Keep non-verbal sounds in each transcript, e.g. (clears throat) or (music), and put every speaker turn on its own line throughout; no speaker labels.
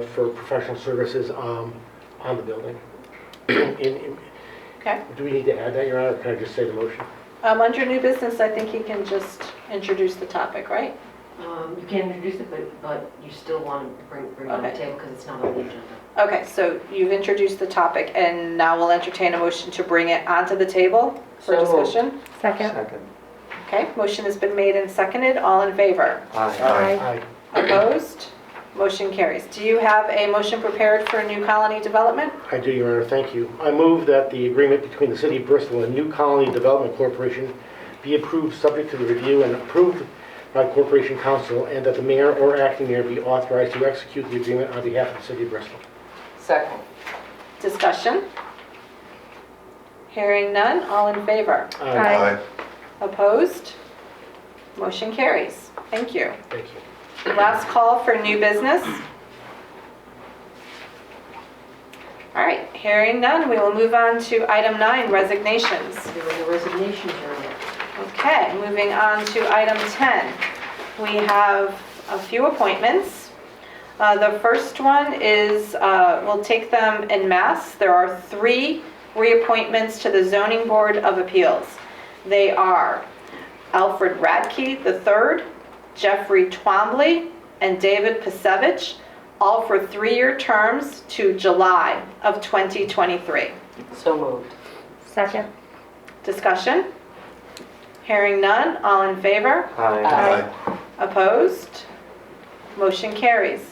for professional services um, on the building. (clears throat) In- in-
Okay.
Do we need to add that, Your Honor, or can I just say the motion?
Um, Under new business, I think he can just introduce the topic, right?
Um, You can introduce it, but, but you still want to bring, bring it on the
Okay.
table because it's not on the agenda.
Okay, so you've introduced the topic, and now we'll entertain a motion to bring it onto the table for
So moved.
discussion.
Second.
Second.
Okay, motion has been made and seconded, all in
(clears throat)
favor?
Aye.
Aye.
Opposed? Motion carries. Do you have a motion prepared for new colony development?
I do, Your Honor, thank you. I move that the agreement between the City of Bristol and New Colony Development Corporation be approved, subject to the review and approved by Corporation Council, and that the mayor or acting mayor be authorized to execute the agreement on behalf of the City of Bristol.
Second.
Discussion? Hearing none, all in favor?
Aye.
Opposed? Motion carries. Thank you.
Thank you.
Last call for new business. All right, hearing none, we will move on to item nine, resignations.
There was a resignation journal.
Okay, moving on to item 10. We have a few appointments. Uh, The first one is, uh, we'll take them in mass. There are three reappointments to the Zoning Board of Appeals. They are Alfred Radke III, Jeffrey Twombly, and David Pasevich, all for three-year terms to July of 2023.
So moved.
Second.
Discussion? Hearing none, all in favor?
Aye.
Opposed? Motion carries.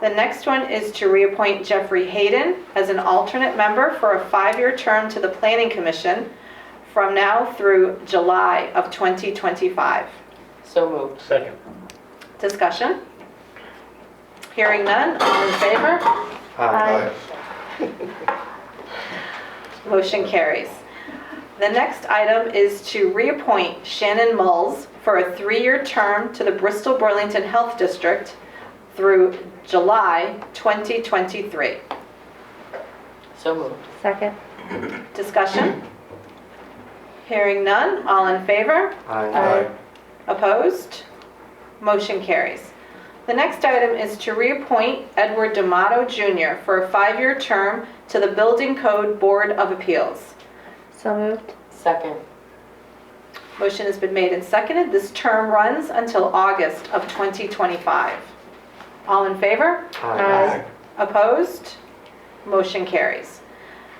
The next one is to reappoint Jeffrey Hayden as an alternate member for a five-year term to the Planning Commission from now through July of 2025.
So moved.
Second.
Discussion? Hearing none, all in favor?
Aye.
Motion carries. The next item is to reappoint Shannon Mulls for a three-year term to the Bristol Burlington Health District through July 2023.
So moved.
Second.
Discussion? Hearing none, all in favor?
Aye.
Opposed? Motion carries. The next item is to reappoint Edward D'Amato Jr. for a five-year term to the Building Code Board of Appeals.
So moved.
Second.
Motion has been made and seconded. This term runs until August of 2025. All in favor?
Aye.
Opposed? Motion carries.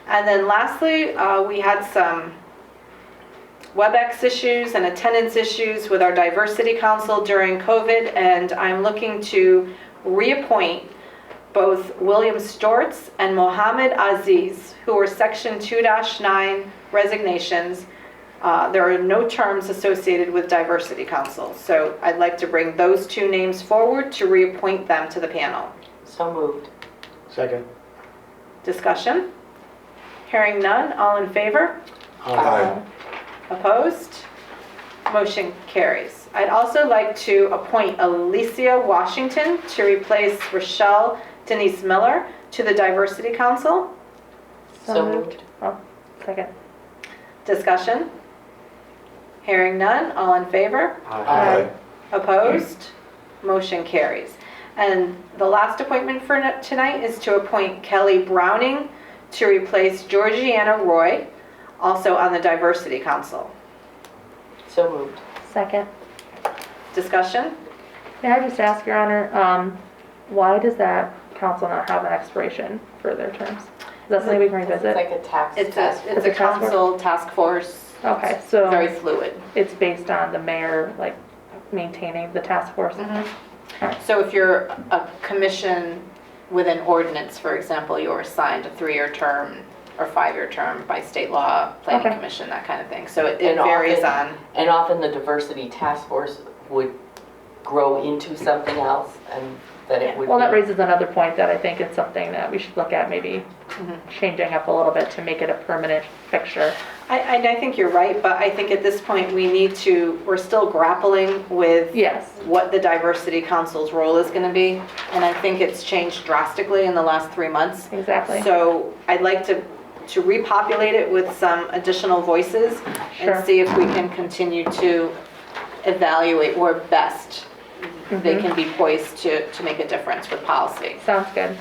And then lastly, uh, we had some WebEx issues and attendance issues with our diversity council during COVID, and I'm looking to reappoint both William Stortz and Mohammed Aziz, who were Section 2-9 resignations. Uh, There are no terms associated with diversity council, so I'd like to bring those two names forward to reappoint them to the panel.
So moved.
Second.
Discussion? Hearing none, all in favor?
Aye.
Opposed? Motion carries. I'd also like to appoint Alicia Washington to replace Rochelle Denise Miller to the Diversity Council.
So moved.
Oh, second.
Discussion? Hearing none, all in favor?
Aye.
Opposed? Motion carries. And the last appointment for no- tonight is to appoint Kelly Browning to replace Georgiana Roy, also on the Diversity Council.
So moved.
Second.
Discussion?
May I just ask, Your Honor, um, why does that council not have an expiration for their terms? Is that something we can revisit?
a tax.
It's a, it's
It's
a
a task force.
council task force,
Okay,
very
so
fluid.
it's based on the mayor, like, maintaining the task force?
Mm-hmm. So if you're a commission with an ordinance, for example, you're assigned a three-year term or five-year term by state law, planning
Okay.
commission, that kind of thing. So it it
And often-
varies on.
And often the diversity task force would grow into something else and that it would be.
Well, that raises another point that I think is something that we should look at, maybe
Mm-hmm.
changing up a little bit to make it a permanent fixture.
I, I- I think you're right, but I think at this point, we need to, we're still grappling with
Yes.
what the diversity council's role is gonna be, and I think it's changed drastically in the last three months.
Exactly.
So I'd like to, to repopulate it with some additional voices
Sure.
and see if we can continue to evaluate where best
Mm-hmm.
they can be poised to, to make a difference with policy.
Sounds good.